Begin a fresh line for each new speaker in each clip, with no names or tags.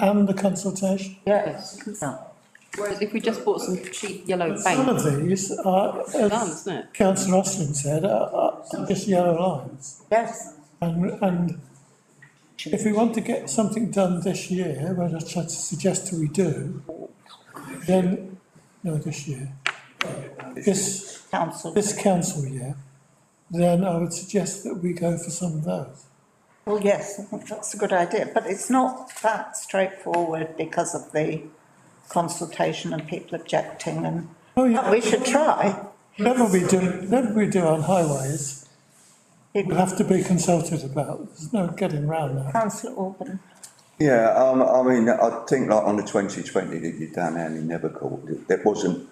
and the consultation.
Yes. Whereas if we just bought some cheap yellow
Some
paint,
of these are,
done,
as
isn't it?
councillor Austin said, are, are just yellow lines.
Yes.
And, and if we want to get something done this year, which I try to suggest we do, then, no, this year, this,
Council.
this council year, then I would suggest that we go for some of those.
Well, yes, I think that's a good idea, but it's not that straightforward because of the consultation and people objecting and,
Oh,
but
yeah,
we should try.
whatever we do, whatever we do on highways,
It-
we have to be consulted about, there's no getting round that.
Councillor Orban,
Yeah, um, I mean, I think like on the twenty twenty that you done, Annie never called it, it wasn't,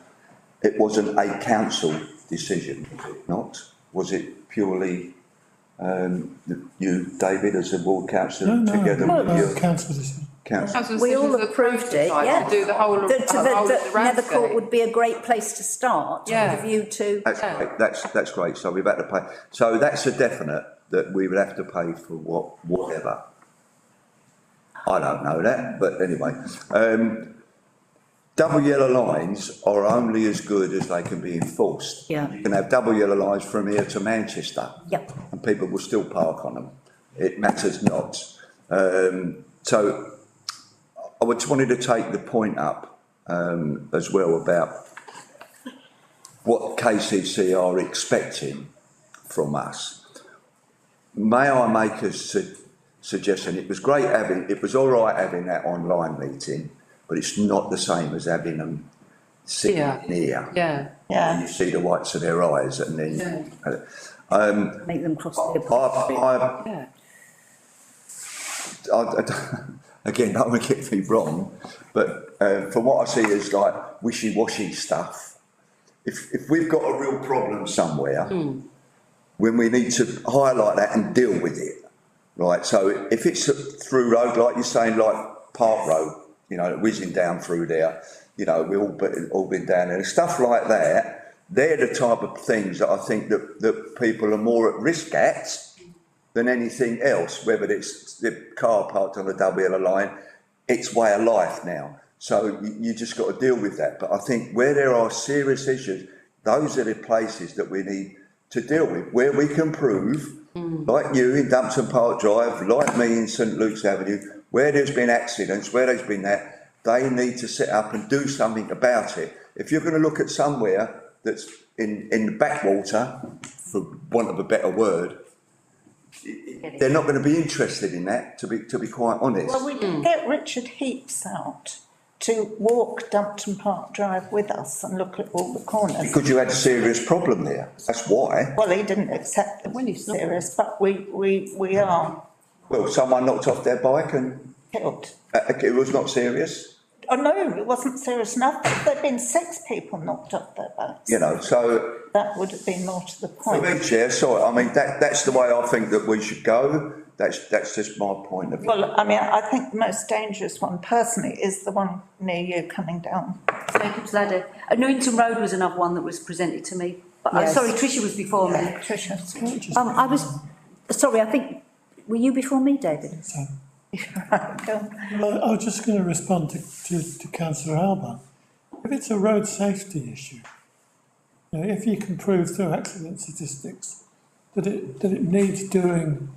it wasn't a council decision, was it not? Was it purely, um, the- you, David, as a ward
No,
councillor,
no,
together with
no,
your
council decision.
council?
Council
We all
decisions are
approved it,
prototype to
yeah.
Do the whole, of-
That,
the whole of the
that Nethercourt
roundscape.
would be a great place to start
Yeah.
with a view to.
That's
Yeah.
great, that's, that's great, so we've had to pay, so that's a definite, that we would have to pay for what, whatever. I don't know that, but anyway, um, double yellow lines are only as good as they can be enforced.
Yeah.
You can have double yellow lines from here to Manchester.
Yep.
And people will still park on them, it matters not. Um, so I just wanted to take the point up, um, as well about what KCC are expecting from us. May I make a su- suggestion? It was great having, it was all right having that online meeting, but it's not the same as having them sitting
Yeah.
here.
Yeah,
And
yeah,
you see the whites of their eyes and then.
Make them cross
I,
the.
I,
yeah.
I, I don't- again, don't want to get me wrong, but uh, from what I see is like wishy-washy stuff. If, if we've got a real problem somewhere, when we need to highlight that and deal with it, right? So if it's a through road, like you're saying, like Park Road, you know, whizzing down through there, you know, we've all been, all been down there, stuff like that. They're the type of things that I think that, that people are more at risk at than anything else, whether it's the car parked on a double yellow line, it's way of life now. So you, you just got to deal with that. But I think where there are serious issues, those are the places that we need to deal with, where we can prove, like you in Dumpton Park Drive, like me in St Luke's Avenue, where there's been accidents, where there's been that, they need to sit up and do something about it. If you're going to look at somewhere that's in, in the backwater, for want of a better word, they're not going to be interested in that, to be, to be quite honest.
well, we can get Richard Heaps out to walk Dumpton Park Drive with us and look at all the corners.
Because you had a serious problem there, that's why.
Well, he didn't accept
When
it
he's not-
serious, but we, we, we are
Well, someone knocked off their bike and
killed.
uh, it was not serious,
Oh, no, it wasn't serious enough, but there'd been six people knocked up their backs.
you know, so.
That would have been more to the
For
point.
me, Chair, sorry, I mean, that, that's the way I think that we should go, that's, that's just my point of view.
Well, I mean, I think the most dangerous one personally is the one near you coming down.
Jacob's Ladder. Uh, Newington Road was another one that was presented to me, but I'm
Yes.
sorry, Tricia was before me.
Tricia.
Um,
Oh.
I was, sorry, I think, were you before me, David?
So-
Don't-
Well, I I was just going to respond to, to, to councillor Alba. If it's a road safety issue, you know, if you can prove through accident statistics that it, that it needs doing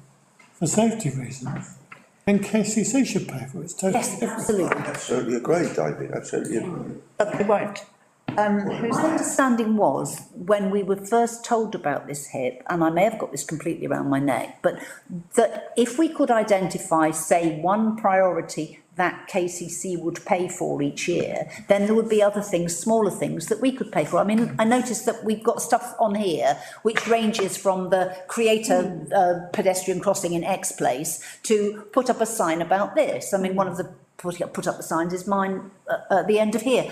for safety reasons, then KCC should pay for it, it's totally
Yes,
different.
absolutely.
Absolutely agree, David, absolutely agree.
But they won't. Um, who's
My understanding was, when we were first told about this hip, and I may have got this completely around my neck, but that if we could identify, say, one priority that KCC would pay for each year, then there would be other things, smaller things that we could pay for. I mean, I noticed that we've got stuff on here which ranges from the create a uh, pedestrian crossing in X place to put up a sign about this. I mean, one of the put up, put up the signs is mine uh, at the end of here.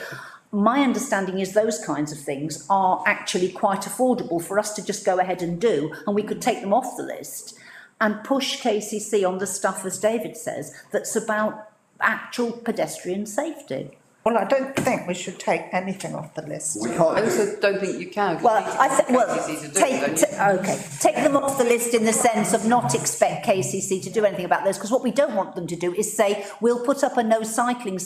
My understanding is those kinds of things are actually quite affordable for us to just go ahead and do, and we could take them off the list and push KCC on the stuff, as David says, that's about actual pedestrian safety.
Well, I don't think we should take anything off the list.
We
I
can't do
also don't think you can. 'cause
Well,
you need to
I think,
get
well,
KCC to do it,
take,
don't you?
t- okay, take them off the list in the sense of not expect KCC to do anything about this, because what we don't want them to do is say, we'll put up a no cycling